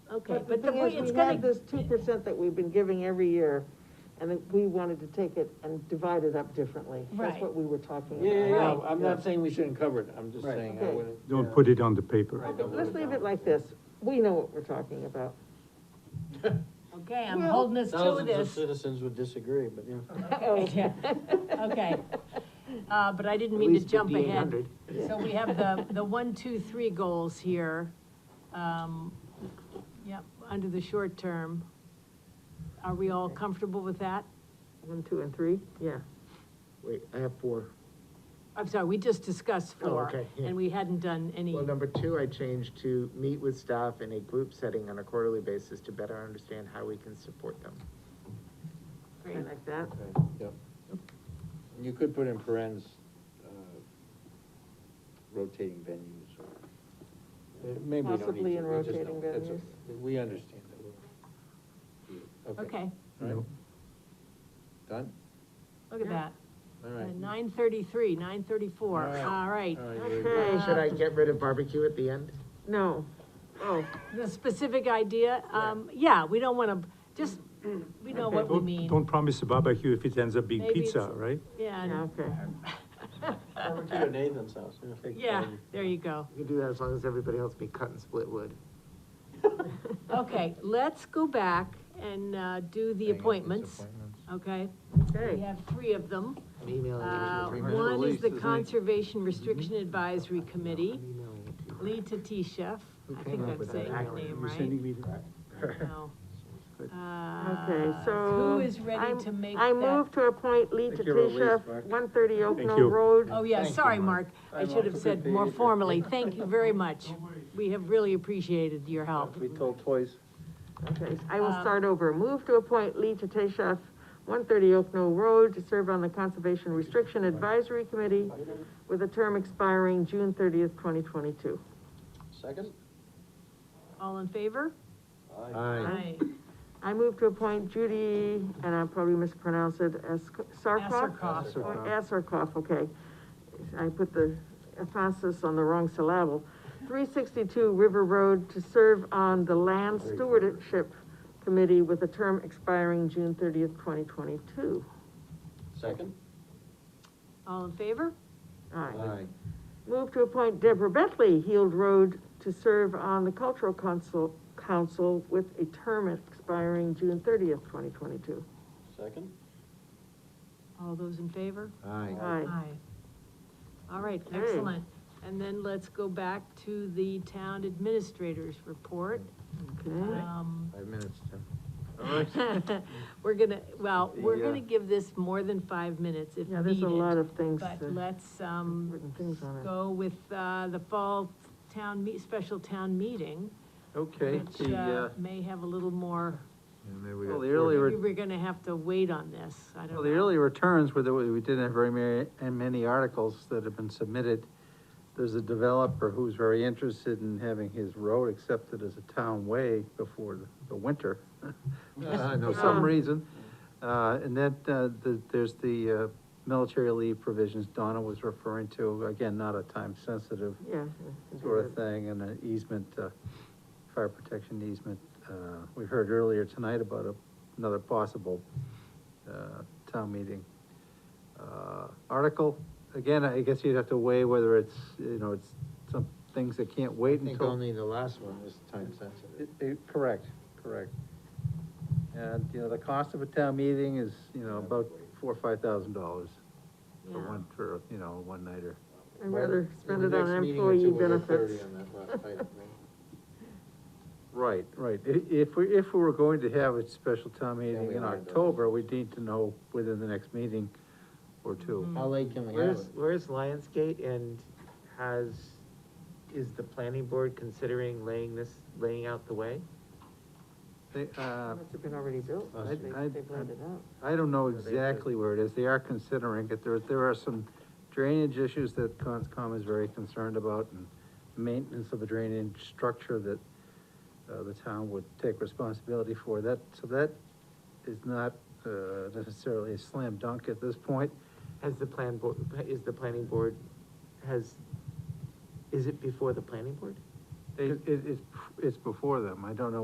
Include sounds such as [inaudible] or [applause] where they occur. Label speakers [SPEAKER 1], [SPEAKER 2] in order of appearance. [SPEAKER 1] okay,
[SPEAKER 2] But the
[SPEAKER 1] but the
[SPEAKER 2] thing
[SPEAKER 1] point,
[SPEAKER 2] is,
[SPEAKER 1] it's
[SPEAKER 2] we had
[SPEAKER 1] gonna,
[SPEAKER 2] this two percent that we've been giving every year, and then we wanted to take it and divide it up differently.
[SPEAKER 1] Right.
[SPEAKER 2] That's what we were talking about.
[SPEAKER 3] Yeah, yeah, yeah,
[SPEAKER 1] Right.
[SPEAKER 3] I'm not saying we shouldn't cover it, I'm just
[SPEAKER 4] Right.
[SPEAKER 3] saying, I
[SPEAKER 2] Okay.
[SPEAKER 3] wouldn't.
[SPEAKER 5] Don't put it on the paper.
[SPEAKER 3] Right.
[SPEAKER 2] But Let's leave it like this, we know what we're
[SPEAKER 1] [laughs]
[SPEAKER 2] talking about.
[SPEAKER 1] okay, I'm
[SPEAKER 2] Well-
[SPEAKER 1] holding us to
[SPEAKER 3] Thousands of
[SPEAKER 1] this.
[SPEAKER 3] citizens would disagree, but, you
[SPEAKER 2] Oh.
[SPEAKER 3] know.
[SPEAKER 1] Yeah, [laughs] Okay, uh, but I didn't
[SPEAKER 3] At
[SPEAKER 1] mean to
[SPEAKER 3] least
[SPEAKER 1] jump ahead.
[SPEAKER 3] 5,800.
[SPEAKER 1] So we have the, the one, two, three goals here. Um, yep, under the short term. Are we all comfortable with that?
[SPEAKER 2] One, two, and three, yeah.
[SPEAKER 4] Wait, I have four.
[SPEAKER 1] I'm sorry, we just discussed
[SPEAKER 4] Oh,
[SPEAKER 1] four,
[SPEAKER 4] okay, yeah.
[SPEAKER 1] and we hadn't done any,
[SPEAKER 4] Well, number two, I changed to meet with staff in a group setting on a quarterly basis to better understand how we can support them.
[SPEAKER 2] I like that.
[SPEAKER 3] Yep. You could put in parentheses, uh, rotating venues or. Uh, Maybe we don't
[SPEAKER 2] Possibly
[SPEAKER 3] need
[SPEAKER 2] in
[SPEAKER 3] to, we just
[SPEAKER 2] rotating
[SPEAKER 3] don't, that's
[SPEAKER 2] venues.
[SPEAKER 3] okay. We understand that. we'll-
[SPEAKER 1] okay,
[SPEAKER 3] All right. Done?
[SPEAKER 1] look at that.
[SPEAKER 3] All right.
[SPEAKER 1] Nine thirty-three, nine thirty-four,
[SPEAKER 3] All right.
[SPEAKER 1] all right. Uh,
[SPEAKER 3] All right, you're-
[SPEAKER 2] Okay.
[SPEAKER 4] Should I get rid of barbecue at the end?
[SPEAKER 2] No, oh,
[SPEAKER 1] The specific idea, um, yeah, we don't wanna, just, we know what we
[SPEAKER 5] Don't-
[SPEAKER 1] mean,
[SPEAKER 5] Don't promise a barbecue if it ends up being
[SPEAKER 1] Maybe
[SPEAKER 5] pizza,
[SPEAKER 1] it's-
[SPEAKER 5] right?
[SPEAKER 1] yeah,
[SPEAKER 2] yeah,
[SPEAKER 1] and- [laughs]
[SPEAKER 2] okay.
[SPEAKER 3] Over to your Nathan's house, yeah.
[SPEAKER 1] yeah, there you go.
[SPEAKER 4] You can do that as long as everybody else be cut and split wood.
[SPEAKER 1] Okay, let's go back and, uh, do the
[SPEAKER 3] Hang on, these
[SPEAKER 1] appointments, okay? We
[SPEAKER 2] Okay,
[SPEAKER 1] have three of them.
[SPEAKER 4] I'm emailing
[SPEAKER 1] Uh,
[SPEAKER 4] you.
[SPEAKER 3] Three-minute
[SPEAKER 1] one is
[SPEAKER 3] release,
[SPEAKER 1] the
[SPEAKER 3] isn't it?
[SPEAKER 1] Conservation Restriction Advisory Committee,
[SPEAKER 4] I'm emailing you.
[SPEAKER 1] Lee Tatisha,
[SPEAKER 4] Who
[SPEAKER 1] I
[SPEAKER 4] came
[SPEAKER 1] think
[SPEAKER 4] up
[SPEAKER 1] I'm
[SPEAKER 4] with
[SPEAKER 1] saying
[SPEAKER 4] that
[SPEAKER 1] her
[SPEAKER 4] acronym?
[SPEAKER 1] name
[SPEAKER 5] You're
[SPEAKER 1] right.
[SPEAKER 5] sending me that?
[SPEAKER 1] No.
[SPEAKER 2] okay,
[SPEAKER 1] Uh,
[SPEAKER 2] so.
[SPEAKER 1] Who is ready
[SPEAKER 2] I'm-
[SPEAKER 1] to make
[SPEAKER 2] I
[SPEAKER 1] that?
[SPEAKER 2] move to appoint Lee
[SPEAKER 4] Thank you, Elise,
[SPEAKER 2] Tatisha,
[SPEAKER 4] Mark.
[SPEAKER 2] one thirty Oak
[SPEAKER 5] Thank
[SPEAKER 2] Knoll
[SPEAKER 5] you.
[SPEAKER 2] Road.
[SPEAKER 1] Oh, yeah,
[SPEAKER 3] Thank you,
[SPEAKER 1] sorry, Mark,
[SPEAKER 3] Mark.
[SPEAKER 1] I should have said more formally, thank you
[SPEAKER 2] [laughs]
[SPEAKER 1] very much. We have really appreciated your help.
[SPEAKER 3] We told twice.
[SPEAKER 2] Okay, I will start over. Move to appoint Lee Tatesha, one thirty Oak Knoll Road, to serve on the Conservation Restriction Advisory Committee with a term expiring June thirtieth, twenty twenty-two.
[SPEAKER 3] Second?
[SPEAKER 1] All in favor?
[SPEAKER 4] Aye.
[SPEAKER 2] I move to appoint Judy, and I probably mispronounced it, as Sarkoff?
[SPEAKER 1] Asarkoff.
[SPEAKER 2] Or Asarkoff, okay. I put the emphasis on the wrong syllable. Three sixty-two River Road to serve on the Land Stewardship Committee with a term expiring June thirtieth, twenty twenty-two.
[SPEAKER 3] Second?
[SPEAKER 1] All in favor?
[SPEAKER 2] Aye. Move to appoint Deborah Bentley, Heald Road, to serve on the Cultural Council, Council with a term expiring June thirtieth, twenty twenty-two.
[SPEAKER 3] Second?
[SPEAKER 1] All those in favor?
[SPEAKER 4] Aye.
[SPEAKER 2] Aye.
[SPEAKER 1] All right,
[SPEAKER 2] Okay.
[SPEAKER 1] excellent. And then let's go back to the town administrator's report.
[SPEAKER 2] Okay.
[SPEAKER 1] Um,
[SPEAKER 4] Five minutes, Tim.
[SPEAKER 2] [laughs]
[SPEAKER 1] [laughs] we're gonna, well, we're
[SPEAKER 4] The, uh,
[SPEAKER 1] gonna give this more than five minutes if
[SPEAKER 2] Yeah, there's a lot
[SPEAKER 1] needed.
[SPEAKER 2] of things,
[SPEAKER 1] But
[SPEAKER 2] uh,
[SPEAKER 1] let's, um,
[SPEAKER 2] written things on it.
[SPEAKER 1] go with, uh, the fall town meet, special town meeting,
[SPEAKER 6] Okay,
[SPEAKER 1] which,
[SPEAKER 6] the,
[SPEAKER 1] uh,
[SPEAKER 6] uh,
[SPEAKER 1] may have a little more,
[SPEAKER 4] And maybe we
[SPEAKER 6] well,
[SPEAKER 4] got
[SPEAKER 6] the
[SPEAKER 4] four
[SPEAKER 6] early,
[SPEAKER 4] minutes.
[SPEAKER 6] re-
[SPEAKER 1] maybe we're gonna have to wait on this, I don't know.
[SPEAKER 6] well, the early returns were that we we didn't have very many, and many articles that have been submitted. There's a developer who's very interested in having his road accepted as a town way before the, the winter. [laughs]
[SPEAKER 4] Ah, no
[SPEAKER 6] For some
[SPEAKER 2] kidding.
[SPEAKER 6] reason, uh, and that, uh, the, there's the, uh, military leave provisions Donna was referring to, again, not a time-sensitive
[SPEAKER 2] Yeah.
[SPEAKER 6] sort of thing, and an easement, uh, fire protection easement. Uh, we heard earlier tonight about a- another possible, uh, town meeting. Uh, article, again, I guess you'd have to weigh whether it's, you know, it's some things that can't
[SPEAKER 4] I
[SPEAKER 6] wait
[SPEAKER 4] think
[SPEAKER 6] until.
[SPEAKER 4] only the last one is time sensitive.
[SPEAKER 6] It- it- Correct, correct. And, you know, the cost of a town meeting is, you know, about four, or five thousand dollars for
[SPEAKER 1] Yeah.
[SPEAKER 6] one, for, you know, a one-nighter.
[SPEAKER 2] I'd rather spend
[SPEAKER 4] The
[SPEAKER 2] it
[SPEAKER 4] next
[SPEAKER 2] on
[SPEAKER 4] meeting or two,
[SPEAKER 2] employee
[SPEAKER 4] we'll get 30
[SPEAKER 2] benefits.
[SPEAKER 4] on that last item, right?
[SPEAKER 6] Right, right. I- If we, if we were going to have a special town
[SPEAKER 4] Then
[SPEAKER 6] meeting
[SPEAKER 4] we
[SPEAKER 6] in
[SPEAKER 4] wanna do it.
[SPEAKER 6] October, we need to know within the next meeting or
[SPEAKER 3] Mm-hmm.
[SPEAKER 6] two.
[SPEAKER 4] How late can we have
[SPEAKER 7] Where's,
[SPEAKER 4] it?
[SPEAKER 7] where's Lionsgate and has, is the planning board considering laying this, laying out the way?
[SPEAKER 6] They, uh,
[SPEAKER 2] Must have been already built,
[SPEAKER 6] I-
[SPEAKER 2] they,
[SPEAKER 6] I-
[SPEAKER 2] they planned it out.
[SPEAKER 6] I don't know
[SPEAKER 4] Yeah, they do.
[SPEAKER 6] exactly where it is. They are considering it. There, there are some drainage issues that Conscom is very concerned about and maintenance of a drainage structure that, uh, the town would take responsibility for. That, so that is not, uh, necessarily a slam dunk at this point.
[SPEAKER 7] Has the plan board, is the planning board, has, is it before the planning board?
[SPEAKER 6] They, it, it's, it's before them. I don't know